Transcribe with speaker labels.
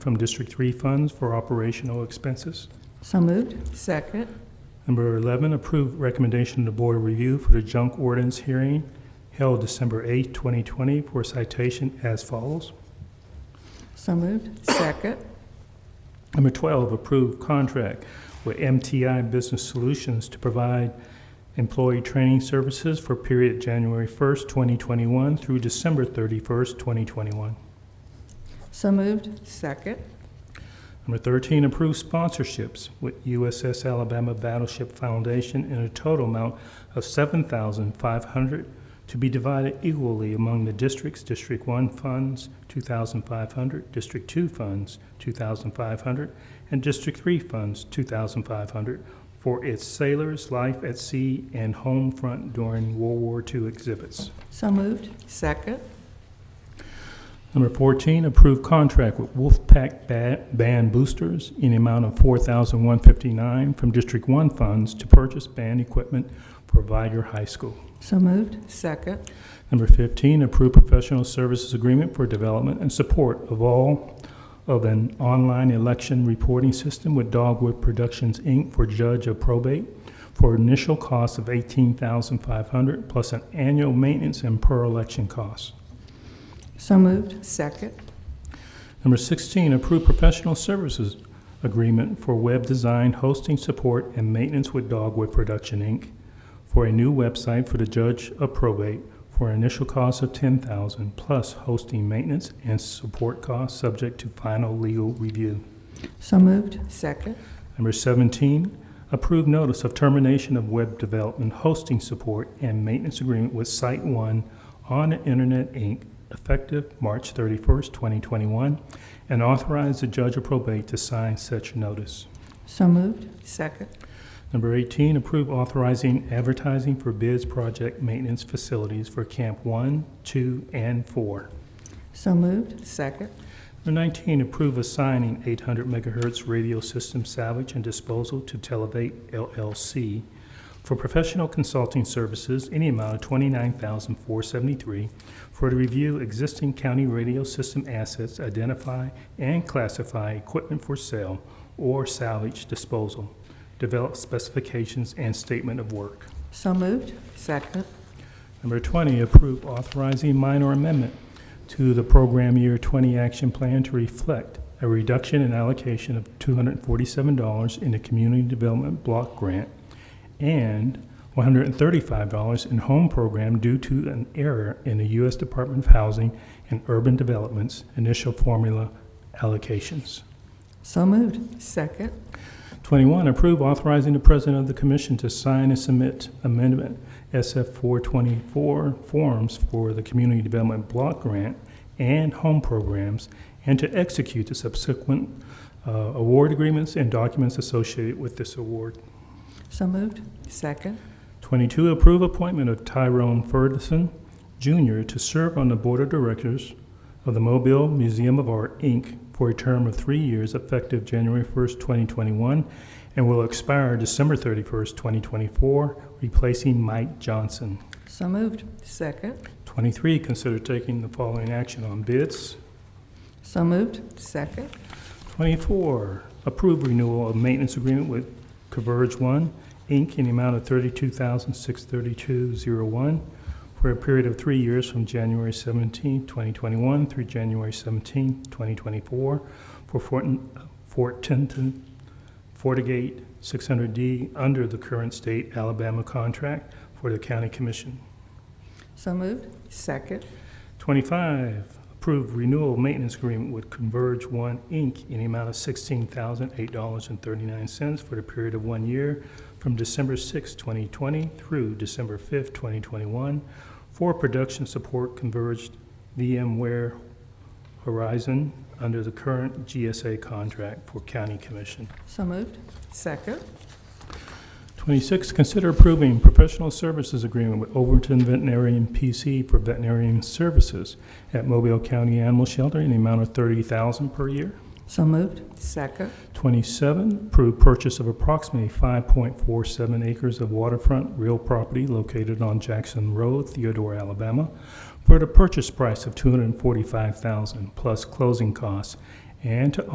Speaker 1: from District 3 funds for operational expenses.
Speaker 2: So moved.
Speaker 3: Second.
Speaker 1: Number 11, approve recommendation to board review for the junk ordinance hearing held December 8, 2020, for citation as follows.
Speaker 2: So moved.
Speaker 3: Second.
Speaker 1: Number 12, approve contract with MTI Business Solutions to provide employee training services for period January 1st, 2021 through December 31st, 2021.
Speaker 2: So moved.
Speaker 3: Second.
Speaker 1: Number 13, approve sponsorships with USS Alabama Battleship Foundation in a total amount of 7500 to be divided equally among the districts, District 1 funds, 2500 District 2 funds, 2500 and District 3 funds, 2500 for its Sailors, Life at Sea, and Home Front during World War II exhibits.
Speaker 2: So moved.
Speaker 3: Second.
Speaker 1: Number 14, approve contract with Wolfpack Ba- Band Boosters in the amount of $4,159 from District 1 funds to purchase band equipment for Viger High School.
Speaker 2: So moved.
Speaker 3: Second.
Speaker 1: Number 15, approve professional services agreement for development and support of all of an online election reporting system with Dogwood Productions, Inc. for judge of probate for initial cost of $18,500 plus an annual maintenance and per-election cost.
Speaker 2: So moved.
Speaker 3: Second.
Speaker 1: Number 16, approve professional services agreement for web design, hosting, support, and maintenance with Dogwood Production, Inc. for a new website for the judge of probate for an initial cost of $10,000 plus hosting, maintenance, and support costs subject to final legal review.
Speaker 2: So moved.
Speaker 3: Second.
Speaker 1: Number 17, approve notice of termination of web development, hosting support, and maintenance agreement with Site One on the Internet, Inc., effective March 31st, 2021, and authorize the judge of probate to sign such notice.
Speaker 2: So moved.
Speaker 3: Second.
Speaker 1: Number 18, approve authorizing advertising for bids project maintenance facilities for Camp 1, 2, and 4.
Speaker 2: So moved.
Speaker 3: Second.
Speaker 1: Number 19, approve assigning 800 megahertz radio system salvage and disposal to Televate LLC for professional consulting services in the amount of $29,473 for to review existing county radio system assets, identify and classify equipment for sale or salvage disposal, develop specifications and statement of work.
Speaker 2: So moved.
Speaker 3: Second.
Speaker 1: Number 20, approve authorizing minor amendment to the program year 20 action plan to reflect a reduction in allocation of $247 in the community development block grant and $135 in home program due to an error in the U.S. Department of Housing and Urban Development's initial formula allocations.
Speaker 2: So moved.
Speaker 3: Second.
Speaker 1: 21, approve authorizing the president of the commission to sign and submit amendment SF 424 forms for the community development block grant and home programs, and to execute the subsequent uh, award agreements and documents associated with this award.
Speaker 2: So moved.
Speaker 3: Second.
Speaker 1: 22, approve appointment of Tyrone Ferguson Jr. to serve on the Board of Directors of the Mobile Museum of Art, Inc. for a term of three years effective January 1st, 2021, and will expire December 31st, 2024, replacing Mike Johnson.
Speaker 2: So moved.
Speaker 3: Second.
Speaker 1: 23, consider taking the following action on bids.
Speaker 2: So moved.
Speaker 3: Second.
Speaker 1: 24, approve renewal of maintenance agreement with Converge One, Inc., in the amount of $32,632.01 for a period of three years from January 17, 2021 through January 17, 2024 for Fort Fort Tinton, Fortigate 600D under the current state Alabama contract for the county commission.
Speaker 2: So moved.
Speaker 3: Second.
Speaker 1: 25, approve renewal maintenance agreement with Converge One, Inc. in the amount of $16,008.39 for the period of one year from December 6, 2020 through December 5, 2021 for production support converged VMware Horizon under the current GSA contract for county commission.
Speaker 2: So moved.
Speaker 3: Second.
Speaker 1: 26, consider approving professional services agreement with Overton Veterinarian PC for veterinarian services at Mobile County Animal Shelter in the amount of $30,000 per year.
Speaker 2: So moved.
Speaker 3: Second.
Speaker 1: 27, approve purchase of approximately 5.47 acres of waterfront real property located on Jackson Road, Theodore, Alabama, for the purchase price of $245,000 plus closing costs, and to